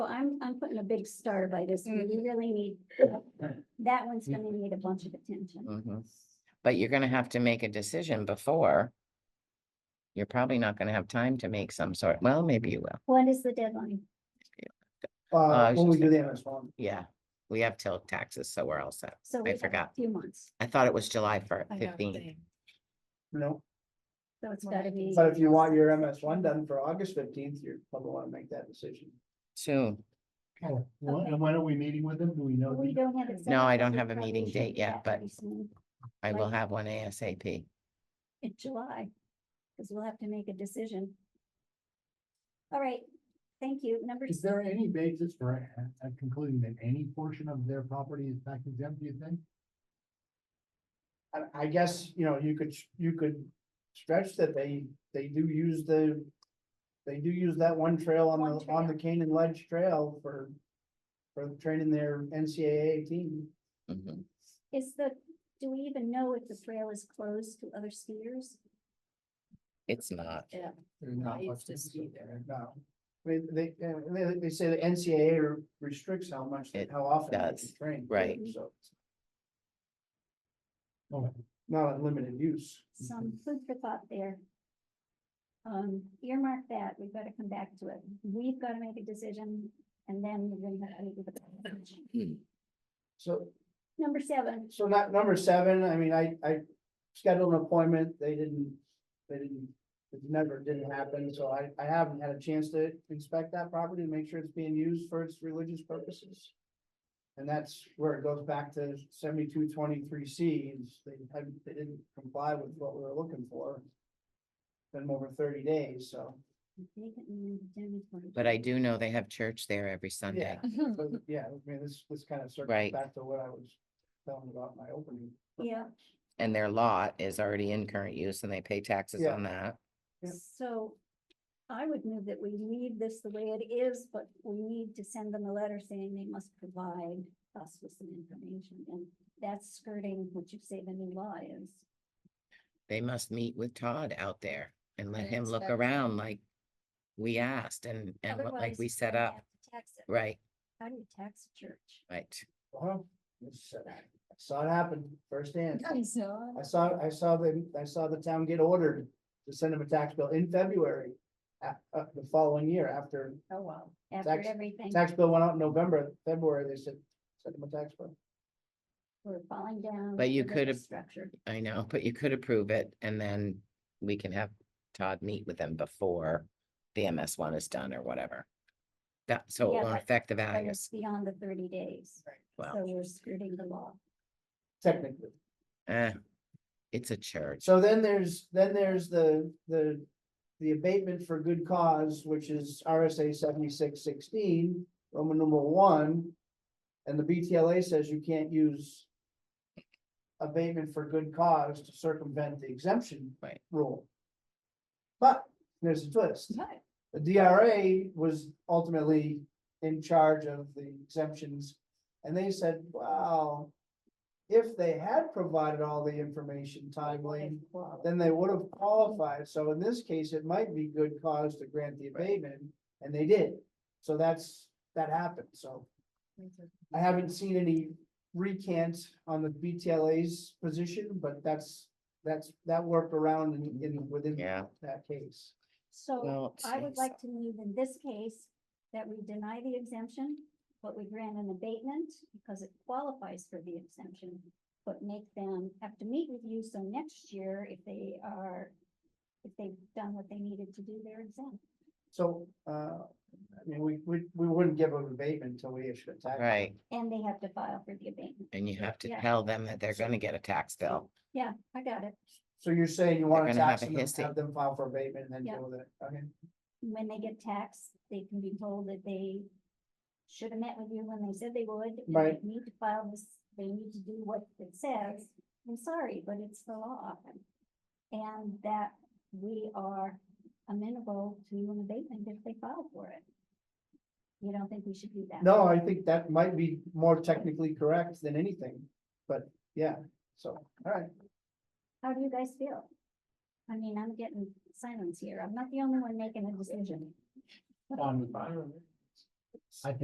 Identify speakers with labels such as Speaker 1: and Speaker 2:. Speaker 1: I'm putting a big star by this one. We really need, that one's gonna need a bunch of attention.
Speaker 2: Mhm. But you're gonna have to make a decision before. You're probably not gonna have time to make some sort, well, maybe you will,
Speaker 1: When is the deadline?
Speaker 2: I
Speaker 3: Uh,
Speaker 2: was
Speaker 3: when we
Speaker 2: just
Speaker 3: do the MS one,
Speaker 2: yeah. We have till taxes, so we're all set.
Speaker 1: So
Speaker 2: I
Speaker 1: we have a
Speaker 2: forgot.
Speaker 1: Few months,
Speaker 2: I thought it was July first,
Speaker 4: I know,
Speaker 2: fifteen.
Speaker 4: same.
Speaker 3: you know,
Speaker 1: so it's gotta be.
Speaker 3: but if you want your MS one done for August fifteenth, you're probably wanna make that decision.
Speaker 2: Soon.
Speaker 5: Oh, wha- And when are we meeting with them? Do we know?
Speaker 1: We
Speaker 5: the-
Speaker 1: don't have it set
Speaker 2: No,
Speaker 1: up,
Speaker 2: I
Speaker 1: but
Speaker 2: don't
Speaker 1: we
Speaker 2: have a
Speaker 1: probably
Speaker 2: meeting
Speaker 1: should
Speaker 2: date
Speaker 1: do
Speaker 2: yet,
Speaker 1: that
Speaker 2: but-
Speaker 1: pretty soon
Speaker 2: I will
Speaker 1: Right.
Speaker 2: have one ASAP.
Speaker 1: In July, because we'll have to make a decision. All right, thank you. Number,
Speaker 5: Is
Speaker 1: s-
Speaker 5: there any basis for a- a- concluding that any portion of their property is tax exempt, do you think?
Speaker 3: I, I guess, you know, you could, you could stretch that they, they do use the. They do use that one trail on
Speaker 1: One
Speaker 3: the, on the
Speaker 1: trail.
Speaker 3: Canaan Ledge Trail for. For training their NCAA team.
Speaker 2: Mhm.
Speaker 1: is the, do we even know if the trail is closed to other skiers?
Speaker 2: It's not.
Speaker 4: Yeah,
Speaker 3: There's
Speaker 4: No,
Speaker 3: not
Speaker 4: it's
Speaker 3: much
Speaker 4: just
Speaker 3: restriction
Speaker 4: either.
Speaker 3: there, No, I mean, they, uh, they, they say the NCAA restricts how much,
Speaker 2: It
Speaker 3: how often they
Speaker 2: does,
Speaker 3: can train. too,
Speaker 2: right.
Speaker 3: So, it's
Speaker 5: Oh,
Speaker 3: not unlimited use.
Speaker 1: Some food for thought there. Um, earmark that. We've got to come back to it. We've got to make a decision and then we're going to have to. make a decision.
Speaker 3: So,
Speaker 1: Number seven,
Speaker 3: so not number seven, I mean, I, I scheduled an appointment, they didn't, they didn't, it never didn't happen, so I, I haven't had a chance to inspect that property and make sure it's being used for its religious purposes. And that's where it goes back to seventy-two twenty-three C, is they hadn't, they didn't comply with what we were looking for. Been over thirty days, so,
Speaker 1: vacant land indemnity.
Speaker 2: But I do know they have church there every Sunday.
Speaker 3: but yeah, I mean, this, this kind of circles
Speaker 2: Right.
Speaker 3: back to what I was telling about my opening.
Speaker 1: Yeah,
Speaker 2: And their lot is already in current use and they pay taxes
Speaker 3: Yeah.
Speaker 2: on that.
Speaker 3: Yep.
Speaker 1: So I would move that we leave this the way it is, but we need to send them a letter saying they must provide us with some information. And that's skirting what you say the new law is.
Speaker 2: They must meet with Todd out there and let
Speaker 4: And
Speaker 2: him look
Speaker 4: inspect it.
Speaker 2: around like we asked and, and what- like
Speaker 1: Otherwise,
Speaker 2: we
Speaker 1: you're
Speaker 2: set
Speaker 1: gonna
Speaker 2: up,
Speaker 1: have to tax it.
Speaker 2: right,
Speaker 1: How do you tax a church?
Speaker 2: right.
Speaker 3: Well, it's, uh, I saw it happen firsthand.
Speaker 4: I saw.
Speaker 3: I saw, I saw the, I saw the town get ordered to send them a tax bill in February. a- uh, the following year after
Speaker 4: Oh, wow.
Speaker 1: After
Speaker 3: Tax-
Speaker 1: everything,
Speaker 3: tax bill went out in November, February, they said, send them a tax bill.
Speaker 1: we're falling down.
Speaker 2: But you
Speaker 1: the
Speaker 2: could have-
Speaker 1: Structure.
Speaker 2: I know, but you could approve it and then we can have Todd meet with them before the MS one is done or whatever. That, so
Speaker 1: Yeah,
Speaker 2: it won't
Speaker 1: but-
Speaker 2: affect the
Speaker 1: But it's
Speaker 2: values.
Speaker 1: beyond the thirty days. So
Speaker 2: Well,
Speaker 1: we're skirting the law.
Speaker 3: Technically.
Speaker 2: eh, it's a church.
Speaker 3: So then there's, then there's the, the, the abatement for good cause, which is RSA seventy-six sixteen, Roman numeral one. And the BTLA says you can't use abatement for good cause to circumvent the exemption.
Speaker 2: Right.
Speaker 3: Rule. But there's a twist. The DRA was ultimately in charge of the exemptions. And they said, well, if they had provided all the information timely, then they would have qualified. So in this case, it might be good cause to grant the abatement, and they did. So that's, that happened. So I haven't seen any recant on the BTLA's position, but that's, that's, that worked around in, in, within
Speaker 2: Yeah.
Speaker 3: that case.
Speaker 1: So
Speaker 2: Well,
Speaker 1: I would
Speaker 2: geez.
Speaker 1: like to move in this case that we deny the exemption, but we grant an abatement because it qualifies for the exemption. But make them have to meet with you, so next year, if they are, if they've done what they needed to do, they're exempt.
Speaker 3: So, uh, I mean, we, we, we wouldn't give them abatement until we issue a tax.
Speaker 2: Right,
Speaker 1: And they have to file for the abatement.
Speaker 2: and you have to
Speaker 1: Yeah.
Speaker 2: tell them that they're
Speaker 3: So-
Speaker 2: gonna get a tax bill.
Speaker 1: Yeah, I got it.
Speaker 3: So you're saying you want to
Speaker 2: gonna have
Speaker 3: tax
Speaker 2: a
Speaker 3: them, and
Speaker 2: hissy.
Speaker 3: have them file for abatement and then
Speaker 1: Yeah.
Speaker 3: deal with it, okay?
Speaker 1: When they get taxed, they can be told that they should have met with you when they said they would. and they
Speaker 3: Right.
Speaker 1: Need to file this, they need to do what it says. I'm sorry, but it's the law. And that we are amenable to an abatement if they file for it. You don't think we should do that?
Speaker 3: No, I think that might be more technically correct than anything, but yeah, so, all right.
Speaker 1: How do you guys feel? I mean, I'm getting silence here. I'm not the only one making a decision.
Speaker 5: On- I think